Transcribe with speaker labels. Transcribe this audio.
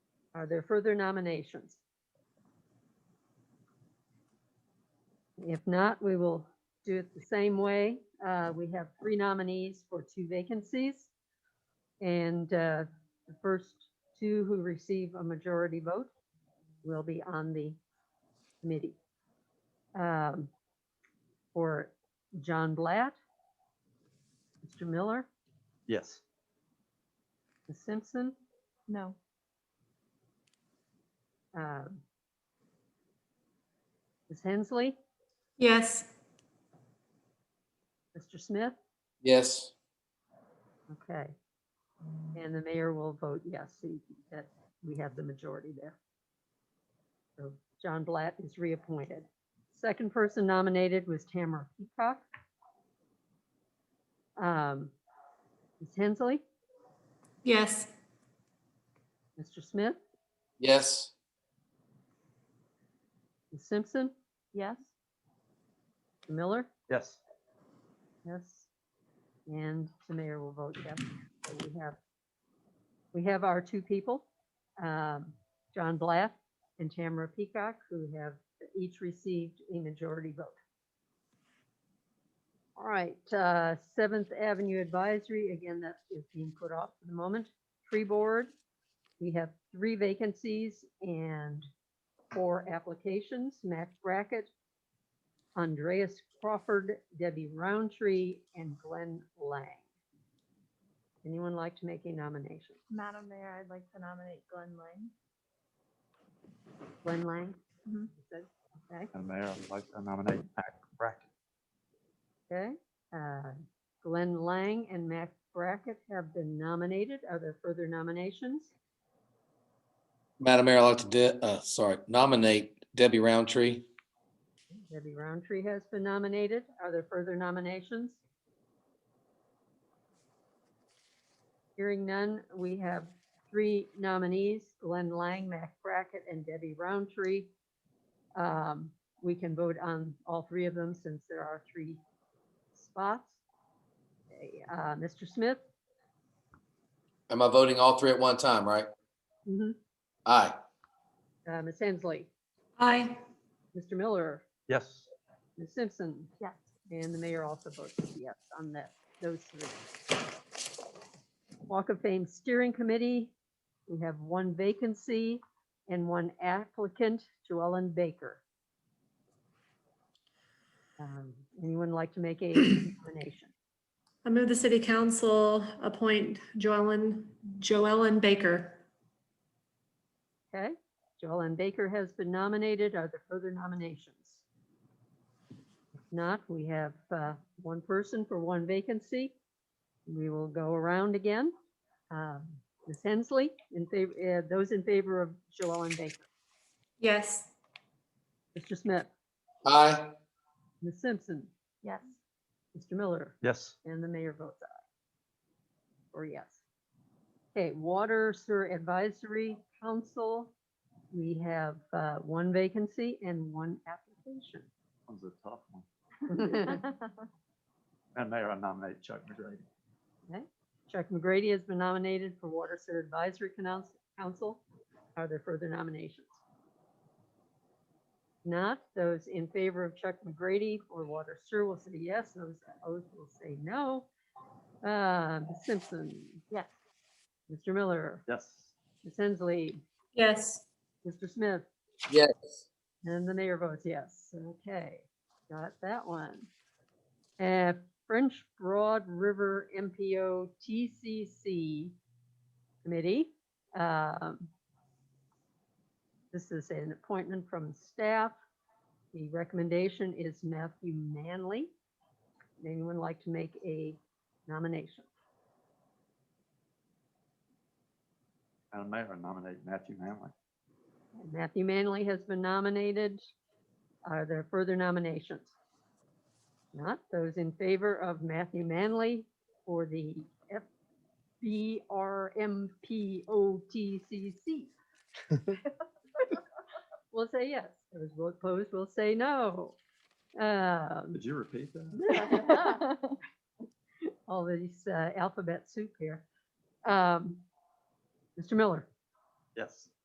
Speaker 1: Are there further nominations? If not, we will do it the same way. Uh, We have three nominees for two vacancies. And uh, the first two who receive a majority vote will be on the committee. Um, For John Blatt, Mr. Miller,
Speaker 2: Yes.
Speaker 1: Ms. Simpson,
Speaker 3: No.
Speaker 1: uh, Ms. Hensley,
Speaker 4: Yes.
Speaker 1: Mr. Smith.
Speaker 5: Yes.
Speaker 1: Okay. And the mayor will vote yes, so you- that we have the majority there. So John Blatt is reappointed. Second person nominated was Tamara Peacock. Um, Ms. Hensley,
Speaker 4: Yes.
Speaker 1: Mr. Smith,
Speaker 5: Yes.
Speaker 1: Ms. Simpson, yes? Miller?
Speaker 2: Yes.
Speaker 1: Yes. And the mayor will vote yes. So we have, we have our two people, um, John Blatt and Tamara Peacock, who have each received a majority vote. All right, uh, Seventh Avenue Advisory, again, that is being put off for the moment. Tree Board, we have three vacancies and four applications. Max Brackett, Andreas Crawford, Debbie Roundtree, and Glenn Lang. Anyone like to make a nomination?
Speaker 3: Madam Mayor, I'd like to nominate Glenn Lang.
Speaker 1: Glenn Lang?
Speaker 3: Mhm.
Speaker 1: Is that- Okay,
Speaker 2: Madam Mayor, I would like to nominate Mac Brackett.
Speaker 1: okay. Uh, Glenn Lang and Max Brackett have been nominated. Are there further nominations?
Speaker 5: Madam Mayor, I'd like to, de- uh, sorry, nominate Debbie Roundtree.
Speaker 1: Debbie Roundtree has been nominated. Are there further nominations? Hearing none, we have three nominees, Glenn Lang, Mac Brackett, and Debbie Roundtree. Um, We can vote on all three of them since there are three spots. Okay, uh, Mr. Smith?
Speaker 5: Am I voting all three at one time, right?
Speaker 1: Mhm.
Speaker 5: Aye.
Speaker 1: Uh, Ms. Hensley?
Speaker 4: Aye.
Speaker 1: Mr. Miller?
Speaker 2: Yes.
Speaker 1: Ms. Simpson?
Speaker 3: Yes.
Speaker 1: And the mayor also votes yes on that, those three. Walk of Fame Steering Committee, we have one vacancy and one applicant, Joellen Baker. Um, Anyone like to make a nomination?
Speaker 4: I move the city council appoint Joellen, Joellen Baker.
Speaker 1: Okay, Joellen Baker has been nominated. Are there further nominations? If not, we have uh, one person for one vacancy. We will go around again. Um, Ms. Hensley, in favor, uh, those in favor of Joellen Baker.
Speaker 4: Yes.
Speaker 1: Mr. Smith,
Speaker 5: Aye.
Speaker 1: Ms. Simpson,
Speaker 3: Yes.
Speaker 1: Mr. Miller.
Speaker 2: Yes.
Speaker 1: And the mayor votes aye. Or yes. Okay, Water Sewer Advisory Council, we have uh, one vacancy and one application.
Speaker 2: That was a tough one. Madam Mayor, I nominate Chuck McGrady.
Speaker 1: Okay. Chuck McGrady has been nominated for Water Sewer Advisory Canals- Council. Are there further nominations? Not, those in favor of Chuck McGrady for Water Sewer will say yes, those opposed will say no. Uh, Ms. Simpson,
Speaker 3: Yes.
Speaker 1: Mr. Miller,
Speaker 2: Yes.
Speaker 1: Ms. Hensley,
Speaker 4: Yes.
Speaker 1: Mr. Smith,
Speaker 5: Yes.
Speaker 1: and the mayor votes yes. Okay, got that one. Uh, French Broad River MPO TCC Committee. um, This is an appointment from staff. The recommendation is Matthew Manley. Would Anyone like to make a nomination?
Speaker 2: Madam Mayor, I nominate Matthew Manley.
Speaker 1: Matthew Manley has been nominated. Are there further nominations? Not those in favor of Matthew Manley for the FBRMPOTCC? We'll say yes. Those who opposed will say no. Um,
Speaker 2: Could you repeat that?
Speaker 1: All these uh, alphabet soup here. Um, Mr. Miller,
Speaker 2: Yes.